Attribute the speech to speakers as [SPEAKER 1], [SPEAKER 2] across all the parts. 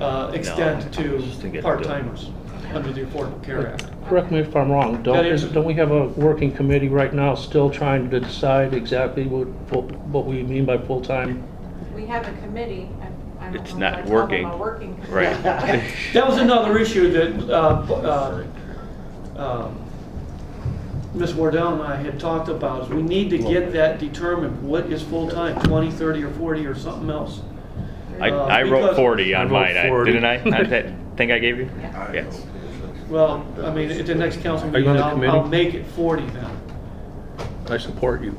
[SPEAKER 1] uh, extend
[SPEAKER 2] I just think
[SPEAKER 1] to
[SPEAKER 2] it'd
[SPEAKER 1] part-timers under the Affordable Care Act.
[SPEAKER 3] Correct me if I'm wrong, don't,
[SPEAKER 1] That is-
[SPEAKER 3] don't we have a working committee right now still trying to decide exactly what, what- what we mean by full-time?
[SPEAKER 4] We have a committee. I- I don't
[SPEAKER 2] It's
[SPEAKER 4] know
[SPEAKER 2] not
[SPEAKER 4] if I call them
[SPEAKER 2] working.
[SPEAKER 4] a working committee.
[SPEAKER 2] Right.
[SPEAKER 1] That was another issue that uh, uh, um, Ms. Wardell and I had talked about, is we need to get that determined, what is full-time, 20, 30, or 40, or something else.
[SPEAKER 2] I,
[SPEAKER 1] Uh,
[SPEAKER 2] I wrote
[SPEAKER 1] because-
[SPEAKER 2] forty on
[SPEAKER 5] I wrote
[SPEAKER 2] mine, I-
[SPEAKER 5] 40.
[SPEAKER 2] didn't I? I that thing I gave you?
[SPEAKER 4] Yeah.
[SPEAKER 2] Yes.
[SPEAKER 1] Well, I mean, at the next council
[SPEAKER 5] Are you on
[SPEAKER 1] meeting,
[SPEAKER 5] the
[SPEAKER 1] I'll, I'll
[SPEAKER 5] committee?
[SPEAKER 1] make it 40 then.
[SPEAKER 5] I support you.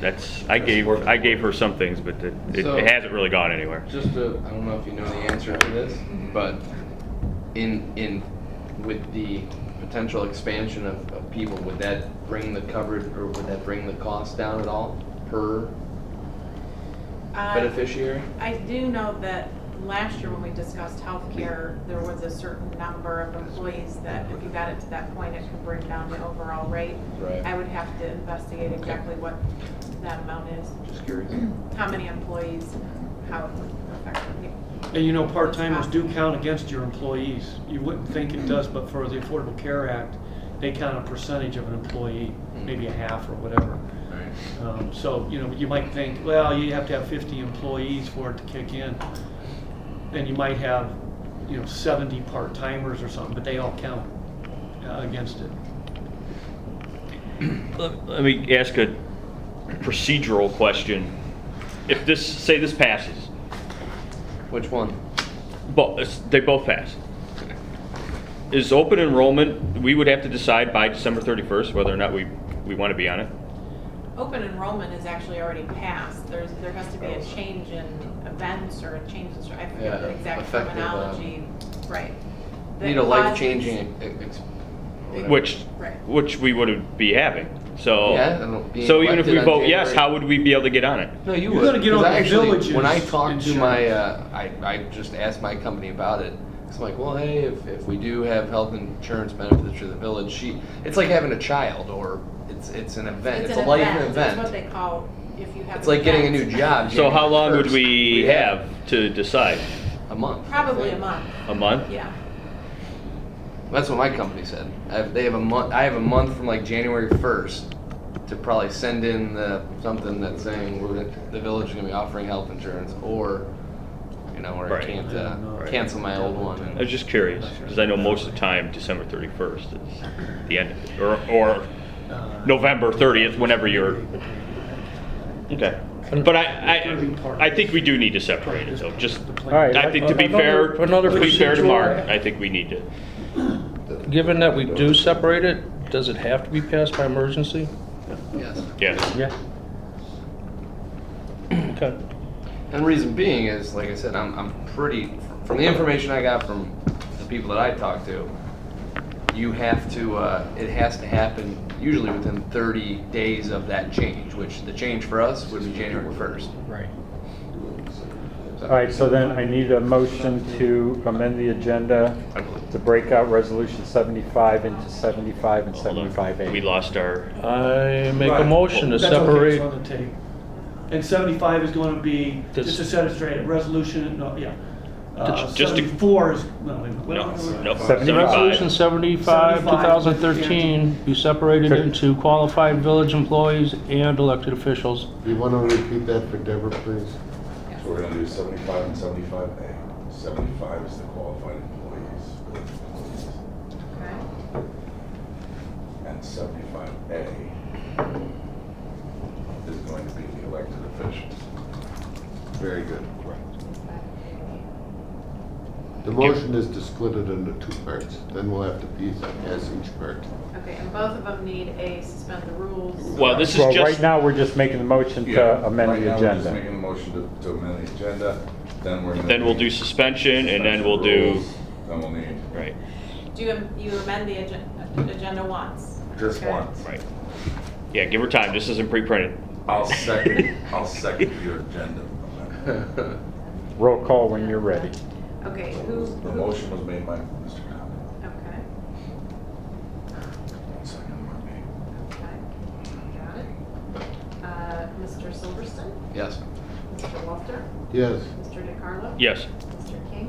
[SPEAKER 2] That's, I gave, I gave her some things, but it, it-
[SPEAKER 6] So-
[SPEAKER 2] it hasn't really gone anywhere.
[SPEAKER 6] Just to, I don't know if you know the answer to this, but in, in, with the potential expansion of, of people, would that bring the coverage, or would that bring the cost down at all per
[SPEAKER 4] Uh,
[SPEAKER 6] beneficiary?
[SPEAKER 4] I do know that last year when we discussed healthcare, there was a certain number of employees that if you got it to that point, it could bring down the overall rate.
[SPEAKER 6] Right.
[SPEAKER 4] I would have to investigate exactly what that amount is,
[SPEAKER 6] Just curious.
[SPEAKER 4] how many employees, and how it would affect people.
[SPEAKER 1] And you know, part-timers do count against your employees. You wouldn't think it does, but for the Affordable Care Act, they count a percentage of an employee, maybe a half or whatever.
[SPEAKER 6] Alright.
[SPEAKER 1] Um, So, you know, you might think, well, you have to have 50 employees for it to kick in. And you might have, you know, 70 part-timers or something, but they all count uh, against it.
[SPEAKER 2] Let let me ask a procedural question. If this, say this passes,
[SPEAKER 6] Which one?
[SPEAKER 2] bo- they both pass. Is open enrollment, we would have to decide by December thirty-first whether or not we, we want to be on it?
[SPEAKER 4] Open enrollment is actually already passed. There's, there has to be a change in events or a change in, str- I forget the
[SPEAKER 6] Oh. Yeah,
[SPEAKER 4] exact
[SPEAKER 6] effective, uh,
[SPEAKER 4] terminology, right. that
[SPEAKER 6] Need a
[SPEAKER 4] causes-
[SPEAKER 6] life-changing ex- ex- whatever.
[SPEAKER 2] Which,
[SPEAKER 4] Right.
[SPEAKER 2] which we would be having, so.
[SPEAKER 6] Yeah, and being
[SPEAKER 2] So even if we
[SPEAKER 6] elected on
[SPEAKER 2] vote yes,
[SPEAKER 6] January-
[SPEAKER 2] how would we be able to get on it?
[SPEAKER 6] No, you
[SPEAKER 1] You're
[SPEAKER 6] would.
[SPEAKER 1] gonna get
[SPEAKER 6] 'cause
[SPEAKER 1] on
[SPEAKER 6] I
[SPEAKER 1] the
[SPEAKER 6] actually,
[SPEAKER 1] village's
[SPEAKER 6] When I talked to my,
[SPEAKER 1] insurance.
[SPEAKER 6] uh, I, I just asked my company about it. It's like, well, hey, if, if we do have health insurance benefits for the village, she, it's like having a child or it's, it's an event. It's,
[SPEAKER 4] an
[SPEAKER 6] a life
[SPEAKER 4] event. It's what
[SPEAKER 6] event.
[SPEAKER 4] they call, if you have.
[SPEAKER 6] It's like getting a new
[SPEAKER 4] events.
[SPEAKER 6] job.
[SPEAKER 2] So how
[SPEAKER 6] January
[SPEAKER 2] long would
[SPEAKER 6] 1st.
[SPEAKER 2] we
[SPEAKER 6] have
[SPEAKER 2] have to decide?
[SPEAKER 6] A month. I
[SPEAKER 4] Probably a
[SPEAKER 6] think.
[SPEAKER 4] month,
[SPEAKER 2] A month?
[SPEAKER 4] yeah.
[SPEAKER 6] That's what my company said. I have, they have a month. I have a month from like January first to probably send in the something that's saying we're gonna, the village is gonna be offering health insurance, or you know, or
[SPEAKER 2] Right.
[SPEAKER 6] I can't uh,
[SPEAKER 1] Right.
[SPEAKER 6] cancel my old one.
[SPEAKER 2] I was just curious, because I know most of the time, December 31st is the end, of it, or, or
[SPEAKER 1] Uh,
[SPEAKER 2] November 30th, whenever you're, okay. But I, I, I think we do need to separate it, though, just,
[SPEAKER 1] All
[SPEAKER 3] right,
[SPEAKER 2] I think to be fair,
[SPEAKER 3] Another-
[SPEAKER 2] to be fair to Mark,
[SPEAKER 3] another
[SPEAKER 2] I think we need to.
[SPEAKER 3] Given that we do separate it, does it have to be passed by emergency?
[SPEAKER 6] Yes.
[SPEAKER 2] Yeah,
[SPEAKER 3] Yeah. Okay.
[SPEAKER 6] And reason being is, like I said, I'm, I'm pretty, from the information I got from the people that I talked to, you have to, uh, it has to happen usually within 30 days of that change, which the change for us would be January 1st.
[SPEAKER 3] Right.
[SPEAKER 7] All right, so then I need a motion to amend the agenda
[SPEAKER 6] I believe.
[SPEAKER 7] to break out Resolution 75 into 75 and
[SPEAKER 2] hold on.
[SPEAKER 7] 75A.
[SPEAKER 2] We lost our,
[SPEAKER 3] I make a
[SPEAKER 1] Right.
[SPEAKER 3] motion to
[SPEAKER 1] That's okay,
[SPEAKER 3] separate.
[SPEAKER 1] it's on the tape. And 75 is going to be, just to
[SPEAKER 3] This-
[SPEAKER 1] set it straight, resolution, no, yeah. Uh,
[SPEAKER 2] Just to-
[SPEAKER 1] 74 is, no, wait a minute.
[SPEAKER 2] no, no,
[SPEAKER 7] 75.
[SPEAKER 3] Resolution
[SPEAKER 2] 75.
[SPEAKER 3] 75, 2013,
[SPEAKER 1] 2013,
[SPEAKER 3] be separated into qualified village employees and elected officials.
[SPEAKER 8] You want to repeat that for Deborah, please?
[SPEAKER 9] So we're gonna do seventy-five and seventy-five A. Seventy-five is the qualified employees,
[SPEAKER 4] Okay.
[SPEAKER 9] and seventy-five A is going to be the elected officials.
[SPEAKER 8] Very good. The
[SPEAKER 2] Give-
[SPEAKER 8] motion is to split it into two parts, then we'll have to piece it as each part.
[SPEAKER 4] Okay, and both of them need a suspend the rules.
[SPEAKER 2] Well, this is
[SPEAKER 7] Well, right
[SPEAKER 2] just,
[SPEAKER 7] now, we're just making the motion
[SPEAKER 9] Yeah,
[SPEAKER 7] to amend
[SPEAKER 9] right now,
[SPEAKER 7] the
[SPEAKER 9] we're Just
[SPEAKER 7] agenda.
[SPEAKER 9] making a motion to, to amend the agenda, then we're gonna.
[SPEAKER 2] then we'll do
[SPEAKER 9] need
[SPEAKER 2] suspension, and then we'll do,
[SPEAKER 9] rules, Then we'll need,
[SPEAKER 2] right,
[SPEAKER 4] Do you, am- you amend the agen- agenda once?
[SPEAKER 9] just
[SPEAKER 4] Okay.
[SPEAKER 9] one.
[SPEAKER 2] right. Yeah, give her time, this isn't pre-printed.
[SPEAKER 9] I'll second, I'll second your agenda amendment.
[SPEAKER 7] Roll call when you're ready.
[SPEAKER 4] Okay, who?
[SPEAKER 9] The
[SPEAKER 4] who-
[SPEAKER 9] motion was made by Mr. Conlon,
[SPEAKER 4] Okay,
[SPEAKER 9] second by me.
[SPEAKER 4] okay, got it. Uh, Mr. Silverston,
[SPEAKER 6] Yes.
[SPEAKER 4] Mr. Walter,
[SPEAKER 8] Yes,
[SPEAKER 4] Mr. DeCarlo?
[SPEAKER 2] Yes,